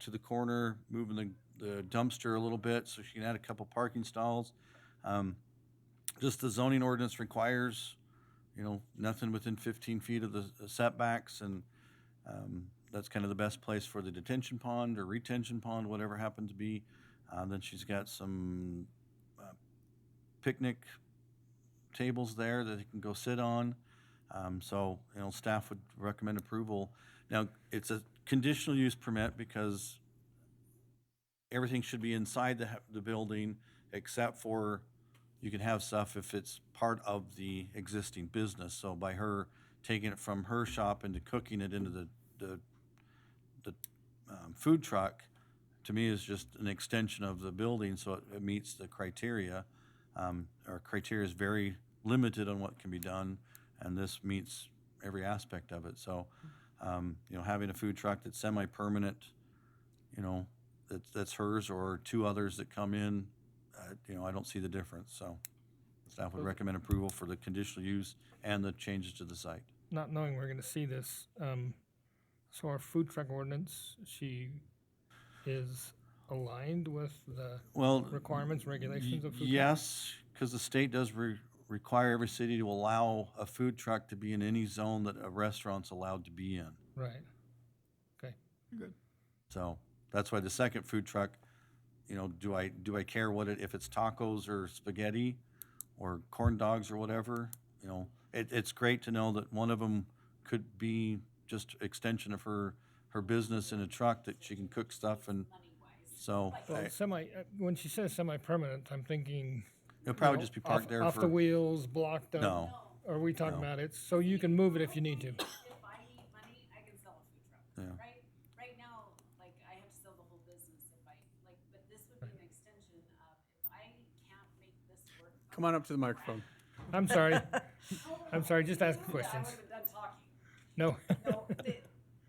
to the corner, moving the, the dumpster a little bit so she can add a couple parking stalls. Um, just the zoning ordinance requires, you know, nothing within fifteen feet of the setbacks and, um, that's kind of the best place for the detention pond or retention pond, whatever happened to be. Uh, then she's got some, uh, picnic tables there that they can go sit on. Um, so, you know, staff would recommend approval. Now, it's a conditional use permit because everything should be inside the, ha- the building except for you can have stuff if it's part of the existing business. So by her taking it from her shop into cooking it into the, the, the, um, food truck, to me is just an extension of the building, so it, it meets the criteria. Um, our criteria is very limited on what can be done, and this meets every aspect of it. So, um, you know, having a food truck that's semi-permanent, you know, that's, that's hers or two others that come in, uh, you know, I don't see the difference, so. Staff would recommend approval for the conditional use and the changes to the site. not knowing we're gonna see this, um, so our food truck ordinance, she is aligned with the Well, requirements, regulations of food trucks? Yes, because the state does re- require every city to allow a food truck to be in any zone that a restaurant's allowed to be in. Right. Okay. Good. So that's why the second food truck, you know, do I, do I care what it, if it's tacos or spaghetti or corn dogs or whatever? You know, it, it's great to know that one of them could be just extension of her, her business in a truck that she can cook stuff and, so Well, I- semi, uh, when she says semi-permanent, I'm thinking. it'll you probably know, just be off- parked there Off the for, wheels, blocked up. no. Are we talking No. about it? So you can move it if you need to. If I need money, I can sell a food Yeah. truck, right? Right now, like, I have to sell the whole business if I, like, but this would be an extension of, if I can't make this work. Come on up to the microphone. I'm sorry. I'm sorry, just ask I questions. would have done talking. No, No, the,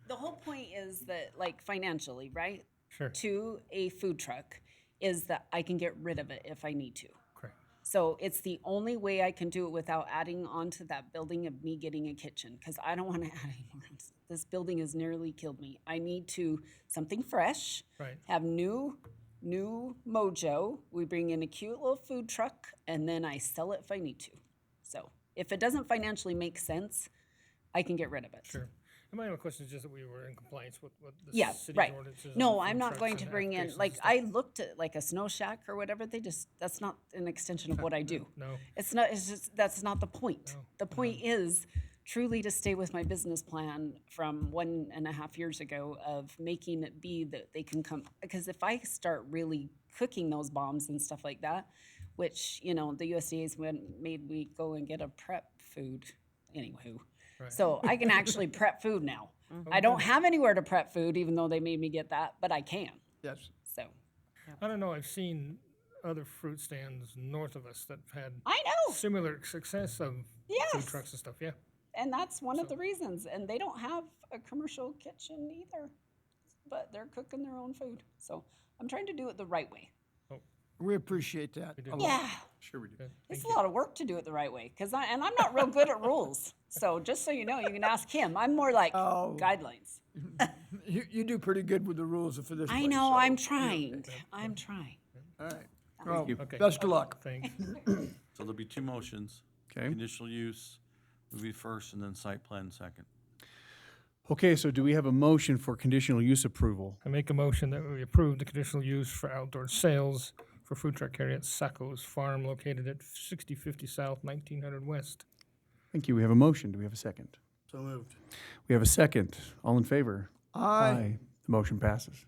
the whole point is that, like, financially, right? sure, To a food truck is that I can get rid of it if I need to. correct. So it's the only way I can do it without adding on to that building of me getting a kitchen because I don't want to add any more. This building has nearly killed me. I need to something fresh, Right, have new, new mojo. We bring in a cute little food truck and then I sell it if I need to. So if it doesn't financially make sense, I can get rid of it. sure. And my only question is just that we were in compliance with what the Yeah, city's right. ordinances. on No, food I'm not trucks going and to bring in, applications like, and stuff. I looked at like a snow shack or whatever. They just, that's not an extension of what I do. No, It's not, it's just, that's not the point. No, The point is truly to stay with my business plan from one and a half years ago of making it be that they can come, because if I start really cooking those bombs and stuff like that, which, you know, the USDA's went, made me go and get a prep food, anywho. Right. Mm-hmm. So I can actually prep food now. I don't have anywhere to prep food, even though they made me get that, but I can, Yes. so. I don't know, I've seen other fruit stands north of us that have had I know, similar success of food Yes. trucks and stuff, yeah. And that's one of the reasons. And they don't have a commercial kitchen either, but they're cooking their own food. So I'm trying to do it the right way. We appreciate that. We do. a lot. Yeah, Sure we do. Good, it's thank a you. lot of work to do it the right way. Cause I, and I'm not real good at rules. So just so you know, you can ask him. I'm more like Oh. guidelines. You, you do pretty good with the rules for this I place, know, so- I'm trying. I'm trying. All right. Well, you. Okay. Best of luck. Thanks. So there'll be two motions. Okay. Conditional use would be first and then site plan second. Okay, so do we have a motion for conditional use approval? I make a motion that we approve the conditional use for outdoor sales for food truck carry at Sacco's Farm located at sixty fifty South, nineteen hundred West. Thank you. We have a motion. Do we have a second? So moved. We have a second. All in favor? Aye. The motion passes.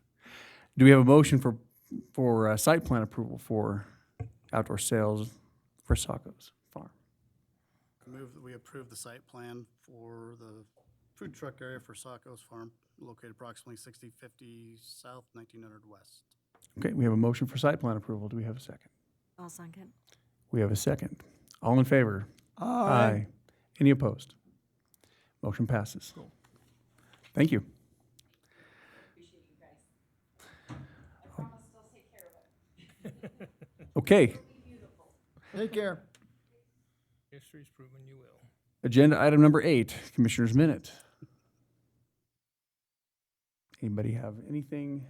Do we have a motion for, for uh, site plan approval for outdoor sales for Sacco's Farm? I Move that we approve the site plan for the food truck area for Sacco's Farm, located approximately 6050 South, 1900 West. Okay, we have a motion for site plan approval. Do we have a second? I'll second. We have a second. All in favor? Aye. Any opposed? Motion passes. Thank you. Okay, Take care. History's proven you will. agenda item number eight, Commissioner's Minute. Anybody have anything